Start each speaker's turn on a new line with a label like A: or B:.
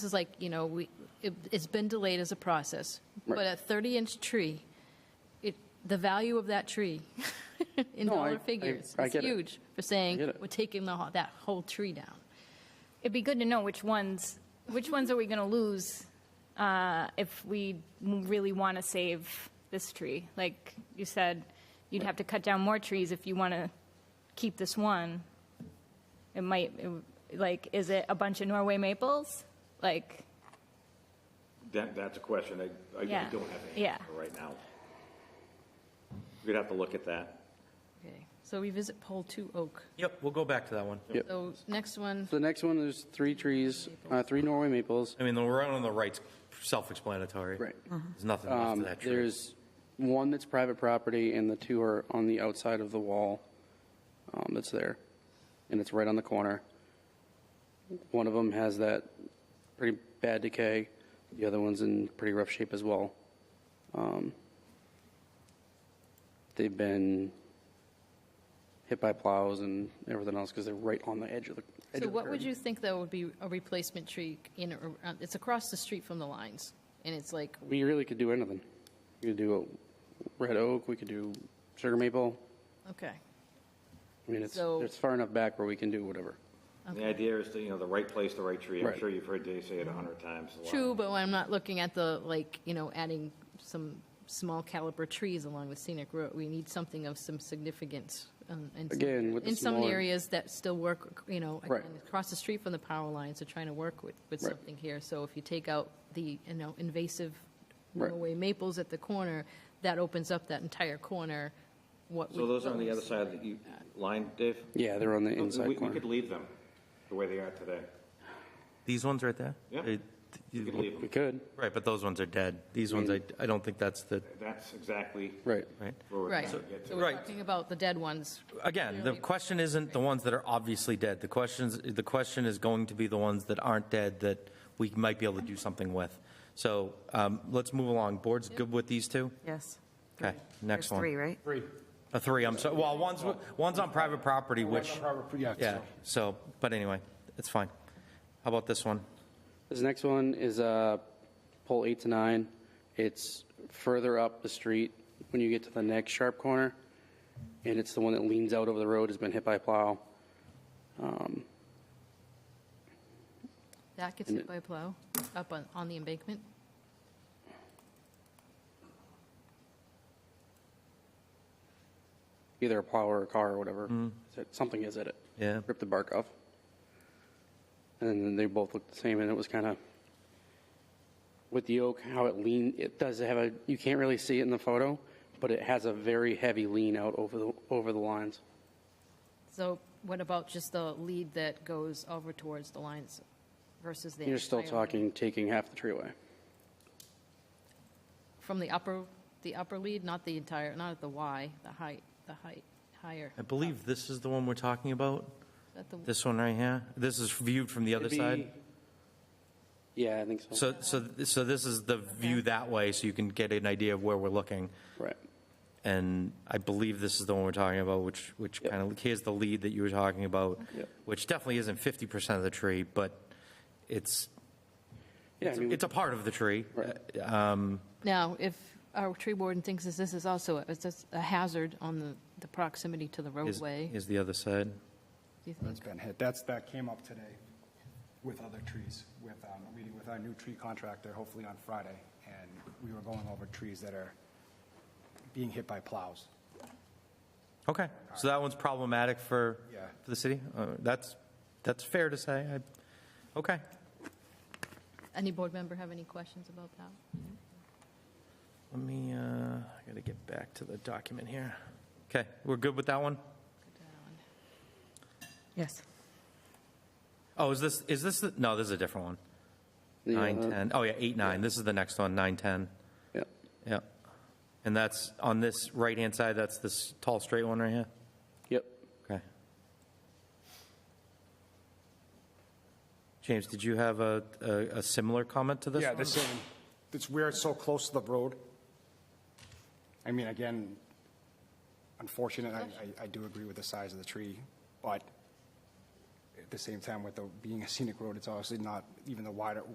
A: This is like, you know, we, it, it's been delayed as a process, but a 30-inch tree, it, the value of that tree in
B: No, I- I-
A: dollar figures
B: I
A: is
B: get it.
A: huge for saying,
B: I get it.
A: we're taking the, whole- that whole tree down.
C: It'd be good to know which ones, which ones are we going to lose uh, if we m- really want to save this tree? Like you said, you'd have to cut down more trees if you want to keep this one. It might, it w- like, is it a bunch of Norway maples? Like,
D: That, that's a question I, I don't
C: Yeah.
D: have an
C: Yeah.
D: answer for right now. We'd have to look at that.
A: Okay, so we visit pole two oak.
E: Yep, we'll go back to that one.
B: Yep.
A: So next one,
B: The next one, there's three trees, uh, three Norway maples.
E: I mean, the one on the right's self-explanatory. Mm-hmm.
B: Right.
E: There's nothing left
B: Um,
E: of that tree.
B: There's one that's private property, and the two are on the outside of the wall um, that's there, and it's right on the corner. One of them has that pretty bad decay. The other one's in pretty rough shape as well. Um, They've been hit by plows and everything else because they're right on the edge of the.
A: so
B: edge of the
A: what would
B: curb.
A: you think though would be a replacement tree in, or- uh, it's across the street from the lines, and it's like,
B: We really could do anything. We could do a red oak. We could do sugar maple.
A: okay.
B: I mean, it's,
A: So-
B: it's far enough back where we can do whatever.
D: The idea is, to, you know, the right place, the right tree. I'm
B: Right.
D: sure you've heard Dave say it a hundred times. a lot.
A: True, but I'm not looking at the, like, you know, adding some small caliber trees along the scenic road. We need something of some significance. um, in some-
B: Again, with the
A: In some
B: smaller-
A: areas that still work, you know,
B: Right.
A: again, across the street from the power lines, are trying to work with, with
B: Right.
A: something here. So if you take out the, you know, invasive
B: Right.
A: Norway maples at the corner, that opens up that entire corner. What
D: So
A: would-
D: those are on
A: what
D: the
A: would
D: other
A: we
D: side of the e- line, Dave?
B: Yeah, they're on the inside
D: Oh, We- We
B: corner.
D: could leave them the way they are today.
E: These ones right there?
D: Yeah.
E: They-
D: We could leave
B: we
D: them.
B: could.
E: Right, but those ones are dead. These ones, I, I don't think that's the,
D: That's exactly
B: Right.
E: right?
D: where we're
A: Right,
D: going to
A: so
D: get to.
A: we're
E: Right.
A: talking about the dead ones.
E: Again, the question isn't the ones that are obviously dead. The questions, the question is going to be the ones that aren't dead that we might be able to do something with. So um, let's move along. Board's good with these two?
F: Yes.
E: Okay, next
F: There's
E: one.
F: three, right?
G: Three.
E: A three, I'm sorry. Well, one's, one's on private property, which,
G: Yeah.
E: yeah,
G: so-
E: so, but anyway, it's fine. How about this one?
B: This next one is uh, pole eight to nine. It's further up the street when you get to the next sharp corner, and it's the one that leans out over the road, has been hit by a plow. Um,
A: That gets hit by a plow up on, on the embankment.
B: Either a plow or a car or whatever.
D: Mm-hmm.
B: Something is at it.
E: Yeah.
B: Ripped the bark off. And then they both looked the same, and it was kind of with the oak how it lean. It does have a you can't really see it in the photo, but it has a very heavy lean out over the over the lines.
A: So what about just the lead that goes over towards the lines versus the?
B: You're still
A: entire lead?
B: talking taking half the tree away.
A: From the upper, the upper lead, not the entire, not at the Y, the height, the height, higher.
E: I believe this is the one we're talking about,
A: At the-
E: this one right here. This is viewed from the other
B: It'd be-
E: side.
B: Yeah, I think so.
E: So, so, so this is the view that way, so you can get an idea of where we're looking.
B: right.
E: And I believe this is the one we're talking about, which, which
B: Yep.
E: kind of, here's the lead that you were talking about,
B: Yep.
E: which definitely isn't 50% of the tree, but it's,
B: Yeah, I mean,
E: it's a part of the tree.
B: Right.
A: Now, if our tree warden thinks that this is also, a- is this a hazard on the, the proximity to the
E: Is,
A: roadway?
E: is the other side.
A: do you
G: That's
A: think?
G: been hit. That's, that came up today with other trees, with, um, a meeting with our new tree contractor, hopefully on Friday. And we were going over trees that are being hit by plows.
E: Okay, so that one's problematic for,
G: Yeah.
E: for the city? Uh, That's, that's fair to say. I- Okay.
A: Any board member have any questions about that?
E: Let me, uh, I gotta get back to the document here. Okay, we're good with that one?
F: Yes.
E: Oh, is this, is this, the- no, this is a different one.
B: the,
E: Nine,
B: uh,
E: 10. Oh, yeah, eight, nine. This is the next one, nine, 10.
B: Yeah.
E: Yeah. And that's on this right-hand side, that's this tall, straight one right here?
B: Yep.
E: Okay. James, did you have a, a a similar comment to this
G: Yeah,
E: one?
G: the same. It's where it's so close to the road. I mean, again, unfortunate, I, I- I do agree with the size of the tree, but at the same time, with the, being a scenic road, it's obviously not even the wider,